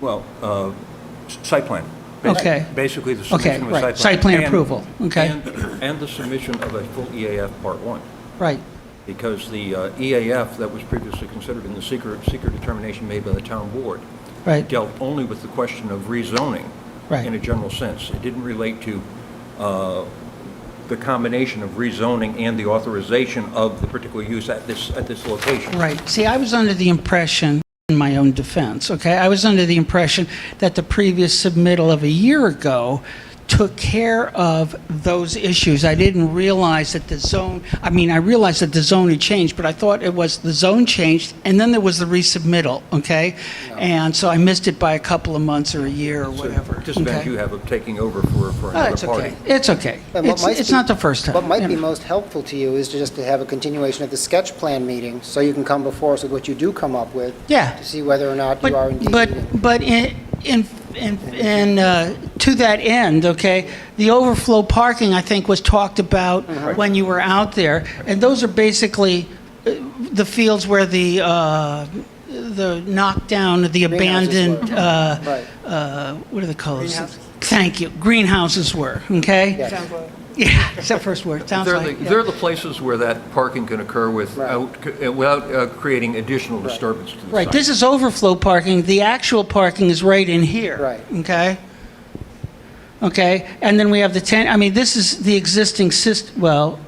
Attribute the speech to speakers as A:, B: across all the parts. A: Well, uh, s- site plan. Basi-
B: Okay.
A: Basically, the
B: Okay,
A: submission of a site plan.
B: right. Site plan
A: and-
B: approval. Okay.
A: and- And the submission of a full EAF Part 1,
B: Right,
A: because the uh, EAF that was previously considered in the seeker, seeker determination made by the town board
B: right,
A: dealt only with the question of rezoning
B: Right.
A: in a general sense. It didn't relate to uh, the combination of rezoning and the authorization of the particular use at this, at this location.
B: right. See, I was under the impression, in my own defense, okay, I was under the impression that the previous submittal of a year ago took care of those issues. I didn't realize that the zone, I mean, I realized that the zone had changed, but I thought it was the zone changed, and then there was the resubmittal, okay? And so I missed it by a couple of months or a year or
A: So,
B: whatever,
A: Just
B: okay?
A: as you have of taking over for, for
B: Oh,
A: another
B: it's
A: party.
B: okay, it's okay.
C: And what
B: It's
C: might
B: it's
C: be-
B: not the first time.
C: What
B: you
C: might be
B: know.
C: most helpful to you is to just to have a continuation of the sketch plan meeting, so you can come before us with what you do come up with.
B: Yeah.
C: To see whether or not you are indeed.
B: But, but in, in, in, in, uh, to that end, okay, the overflow parking, I think, was talked about
C: Uh-huh.
B: when you were out there, and those are basically uh, the fields where the, uh, the knockdown, the
C: Greenhouses were.
B: abandoned, uh,
C: Right.
B: uh, what are the colors? Thank you, greenhouses were, okay?
C: Yes.
B: Yeah, it's that first word, sounds
A: They're the,
B: like. yeah.
A: they're the places where that parking can occur without, uh, without uh, creating additional disturbance to the site.
B: Right, this is overflow parking, the actual parking is right in here.
C: Right.
B: Okay? Okay, and then we have the 10, I mean, this is the existing syst, well,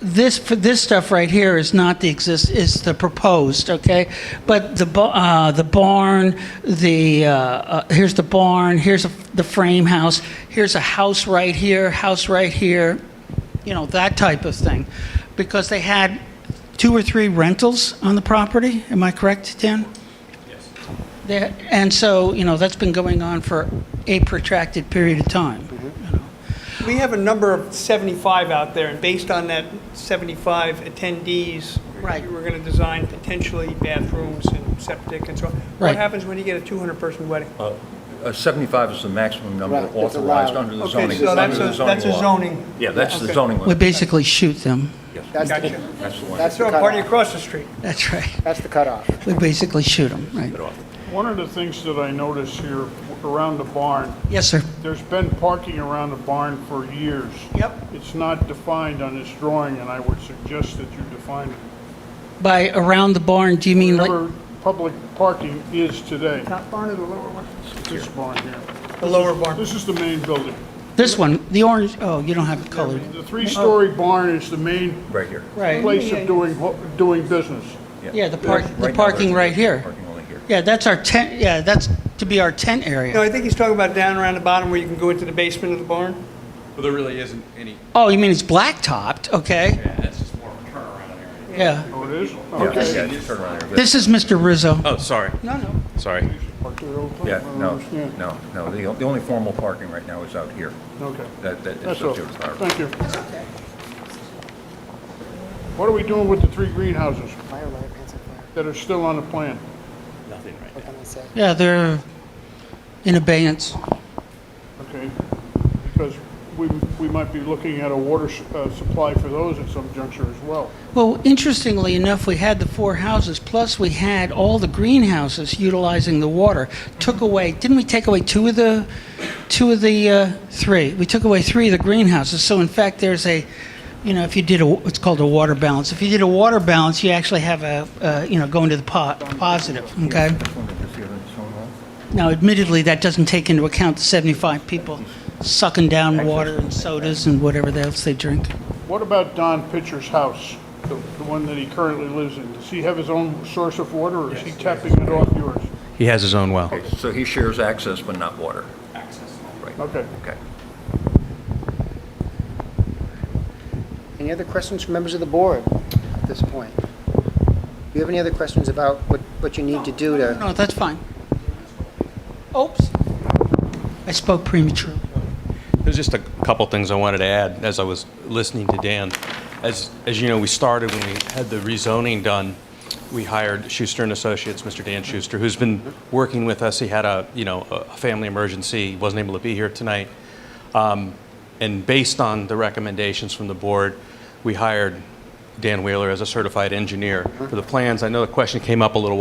B: this, for this stuff right here is not the exist, is the proposed, okay? But the, ba- uh, the barn, the, uh, uh, here's the barn, here's a- the frame house, here's a house right here, house right here, you know, that type of thing. Because they had two or three rentals on the property, am I correct, Dan? Yes. And so, you know, that's been going on for a protracted period of time.
D: Mm-hmm.
E: We have a number of 75 out there, and based on that 75 attendees,
B: Right.
E: we're going to design potentially bathrooms and septic and so on.
B: Right.
E: What happens when you get a 200-person wedding?
A: Uh, 75 is the maximum number
C: Right, that's
A: authorized
C: allowed.
A: under the
E: Okay,
A: zoning.
E: so that's
A: under the
E: a- that's a
A: law.
E: zoning.
A: Yeah, that's the
E: Okay.
A: zoning
B: We
A: one.
B: basically shoot them.
A: Yes,
C: That's the-
E: Gotcha.
A: That's the one.
C: That's the
E: Throw a party
C: cutoff.
E: across the street.
B: That's right.
C: That's the cutoff.
B: We basically shoot them, right?
F: One of the things that I notice here around the barn,
B: Yes, sir.
F: there's been parking around the barn for years.
E: Yep.
F: It's not defined on this drawing, and I would suggest that you define it.
B: By around the barn, do you mean like,
F: Whatever public parking is today,
E: Top barn or the lower one?
F: this barn here.
E: The lower barn.
F: This is the main building.
B: this one, the orange, oh, you don't have it colored.
F: The three-story barn is the main
A: Right here.
B: Right,
F: place of doing, doing business.
B: yeah, the park,
A: Right now,
B: the
A: there's
B: parking right here.
A: Parking only here.
B: Yeah, that's our tent, yeah, that's to be our tent
E: No,
B: area.
E: I think he's talking about down around the bottom where you can go into the basement of the barn.
D: Well, there really isn't any,
B: Oh, you mean it's blacktopped, okay,
D: yeah, that's just more of a turnaround area.
B: yeah.
F: Oh, it is?
A: Yeah,
F: Okay.
A: yeah, just turn around here.
B: This is Mr. Rizzo.
D: Oh, sorry,
B: No, no.
D: sorry.
F: Parked there all the time.
A: Yeah,
F: I don't
A: no,
F: understand.
A: no, no. The the only formal parking right now is out here.
F: Okay.
A: That, that is
F: That's all.
A: subject to our-
F: Thank you. What are we doing with the three greenhouses
C: Fire, lighter, pencil, fire.
F: that are still on the plan?
D: Nothing right
C: What can I say?
B: Yeah, they're in abeyance.
F: Okay, because we, we might be looking at a water s- uh, supply for those at some juncture as well.
B: Well, interestingly enough, we had the four houses, plus we had all the greenhouses utilizing the water. Took away, didn't we take away two of the, two of the, uh, three? We took away three of the greenhouses, so in fact, there's a, you know, if you did a, it's called a water balance. If you did a water balance, you actually have a, uh, you know, go into the po- positive, okay?
A: This one that is here, that's shown on.
B: Now admittedly, that doesn't take into account the 75 people sucking down water and sodas and whatever else they drink.
F: What about Don Pitcher's house, the, the one that he currently lives in? Does he have his own source of water, or is he tapping it off yours?
D: He has his own well.
A: Okay, So he shares access but not water. Access. Right,
F: Okay.
A: okay.
C: Any other questions from members of the board at this point? Do you have any other questions about what, what you need to do to?
B: No, that's fine. Oops. I spoke prematurely.
D: There's just a couple things I wanted to add as I was listening to Dan. As, as you know, we started when we had the rezoning done, we hired Schuster and Associates, Mr. Dan Schuster, who's been working with us. He had a, you know, a a family emergency, He wasn't able to be here tonight. Um, And based on the recommendations from the board, we hired Dan Wheeler as a certified engineer for the plans. I know the question came up a little